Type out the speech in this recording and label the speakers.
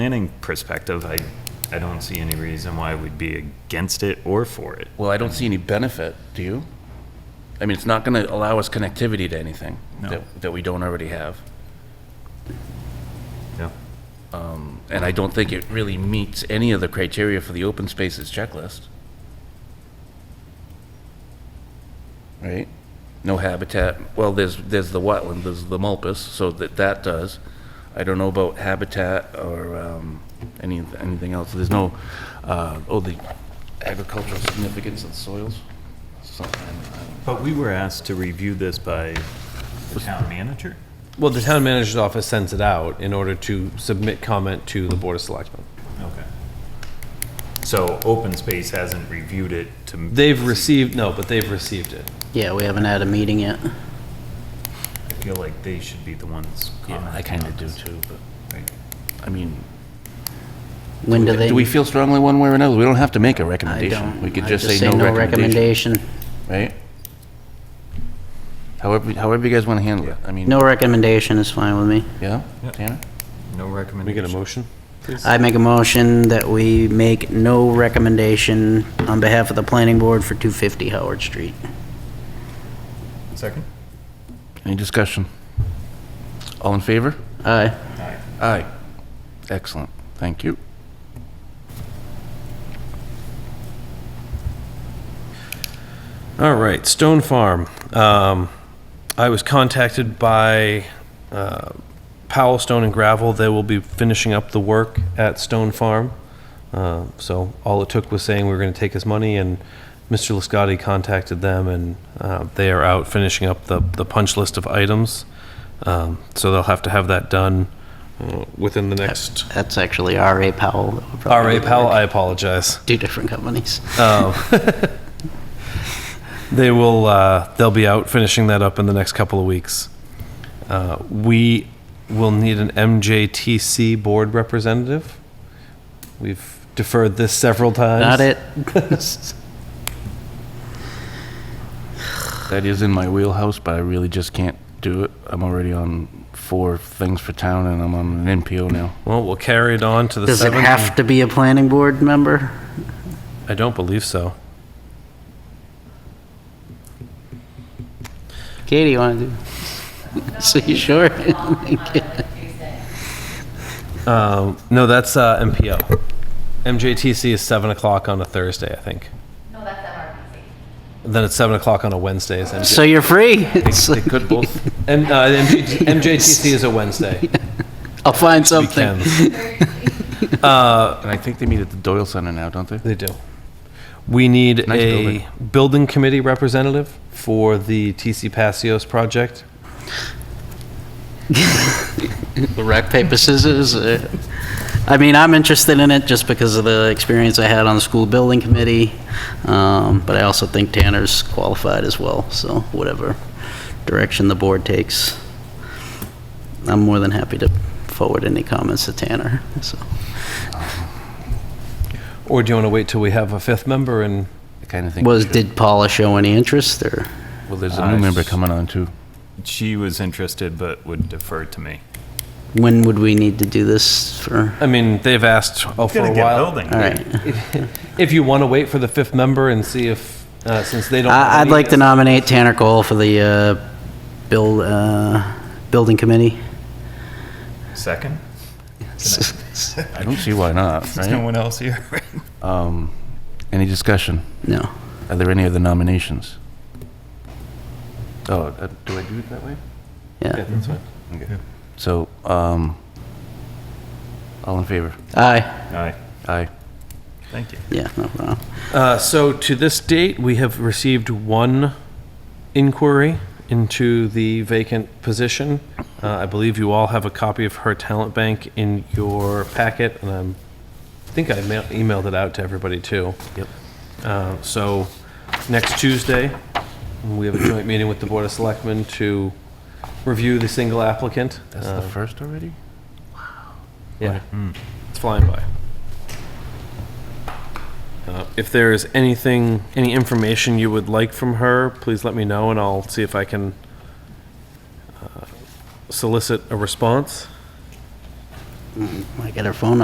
Speaker 1: planning perspective, I, I don't see any reason why we'd be against it or for it.
Speaker 2: Well, I don't see any benefit, do you? I mean, it's not going to allow us connectivity to anything that, that we don't already have.
Speaker 1: Yeah.
Speaker 2: And I don't think it really meets any of the criteria for the open spaces checklist. Right? No habitat, well, there's, there's the wetland, there's the mulpus, so that, that does. I don't know about habitat or, um, any, anything else. There's no, uh, oh, the agricultural significance of the soils. Something, I don't-
Speaker 1: But we were asked to review this by the town manager?
Speaker 3: Well, the town manager's office sends it out in order to submit comment to the Board of Selectmen.
Speaker 1: Okay. So open space hasn't reviewed it to.
Speaker 3: They've received, no, but they've received it.
Speaker 4: Yeah, we haven't had a meeting yet.
Speaker 1: I feel like they should be the ones.
Speaker 2: Yeah, I
Speaker 1: commenting
Speaker 2: kind
Speaker 1: on
Speaker 2: of do
Speaker 1: this.
Speaker 2: too, but,
Speaker 1: Right.
Speaker 2: I mean,
Speaker 4: When do they?
Speaker 2: do we feel strongly one way or another? We don't have to make a
Speaker 4: I
Speaker 2: recommendation.
Speaker 4: don't.
Speaker 2: We could
Speaker 4: I
Speaker 2: just say no recommendation,
Speaker 4: recommendation.
Speaker 2: right? However, however you guys want to handle it. I mean,
Speaker 4: No recommendation is fine with me.
Speaker 2: yeah,
Speaker 1: Yeah.
Speaker 2: Tanner?
Speaker 1: No
Speaker 3: Can we
Speaker 1: recommendation.
Speaker 3: get a motion?
Speaker 4: I make a motion that we make no recommendation on behalf of the planning board for 250 Howard Street.
Speaker 1: Second?
Speaker 2: Any discussion? All in favor?
Speaker 4: Aye.
Speaker 2: Aye. Excellent, thank you.
Speaker 3: All right, Stone Farm. Um, I was contacted by uh, Powell Stone and Gravel. They will be finishing up the work at Stone Farm. Uh, So all it took was saying we were going to take his money, and Mr. Liscotti contacted them, and uh, they are out finishing up the, the punch list of items. Um, So they'll have to have that done uh, within the next.
Speaker 4: That's actually R.A. Powell. that would probably
Speaker 3: RA
Speaker 4: work.
Speaker 3: Powell, I apologize.
Speaker 4: Two different companies.
Speaker 3: They will. Uh, they'll be out finishing that up in the next couple of weeks. Uh, we will need an MJTC board representative. We've deferred this several times.
Speaker 4: Not it.
Speaker 2: That is in my wheelhouse, but I really just can't do it. I'm already on four things for town and I'm on an NPO now.
Speaker 3: Well, we'll carry it on to the
Speaker 4: Does it
Speaker 3: seventh.
Speaker 4: have to be a planning board member?
Speaker 3: I don't believe so.
Speaker 4: Katie, you want to do? So you sure?
Speaker 3: Um, no, that's uh, MPO. MJTC is seven o'clock on a Thursday, I think.
Speaker 5: No, that's MRPC.
Speaker 3: Then it's seven o'clock on a Wednesday. Is MJ-
Speaker 4: So you're free? It's
Speaker 2: They
Speaker 4: like-
Speaker 2: could both,
Speaker 3: M- uh, MJ- MJTC is a Wednesday.
Speaker 4: I'll find something.
Speaker 3: Weekends.
Speaker 2: and I think they meet at the Doyle Center now, don't they?
Speaker 3: They do. We need
Speaker 2: Nice
Speaker 3: a
Speaker 2: building.
Speaker 3: building committee representative for the TC Passios project.
Speaker 4: The rock, paper, scissors. uh, I mean, I'm interested in it just because of the experience I had on the school building committee, um, but I also think Tanner's qualified as well, so whatever direction the board takes, I'm more than happy to forward any comments to Tanner, so.
Speaker 3: Or do you want to wait till we have a fifth member and,
Speaker 2: I kind of think. we
Speaker 4: Was,
Speaker 2: should.
Speaker 4: did Paula show any interest, or?
Speaker 2: Well, there's a new member coming on too.
Speaker 1: She was interested but would defer to me.
Speaker 4: When would we need to do this for?
Speaker 3: I mean, they've asked oh, for a while.
Speaker 4: All right.
Speaker 3: If you want to wait for the fifth member and see if, uh, since they don't. have
Speaker 4: I- I'd
Speaker 3: any-
Speaker 4: like to nominate Tanner Cole for the uh, build, uh, building committee.
Speaker 1: Second?
Speaker 2: I don't see why not, right?
Speaker 1: one else here.
Speaker 2: Um, any discussion?
Speaker 4: No.
Speaker 2: Are there any other nominations? Oh, uh, do I do it that way?
Speaker 4: Yeah.
Speaker 2: So, um, all in favor?
Speaker 4: Aye.
Speaker 1: Aye,
Speaker 2: Aye.
Speaker 1: thank you.
Speaker 4: Yeah, no problem.
Speaker 3: Uh, so to this date, we have received one inquiry into the vacant position. Uh, I believe you all have a copy of her talent bank in your packet, and I'm, I think I ma- emailed it out to everybody too. Yep. Uh, so next Tuesday, we have a joint meeting with the Board of Selectmen to review the single applicant.
Speaker 2: That's
Speaker 3: Uh,
Speaker 2: the first already?
Speaker 3: yeah, it's flying by. Uh, If there is anything, any information you would like from her, please let me know, and I'll see if I can uh, solicit a response.
Speaker 4: I got her phone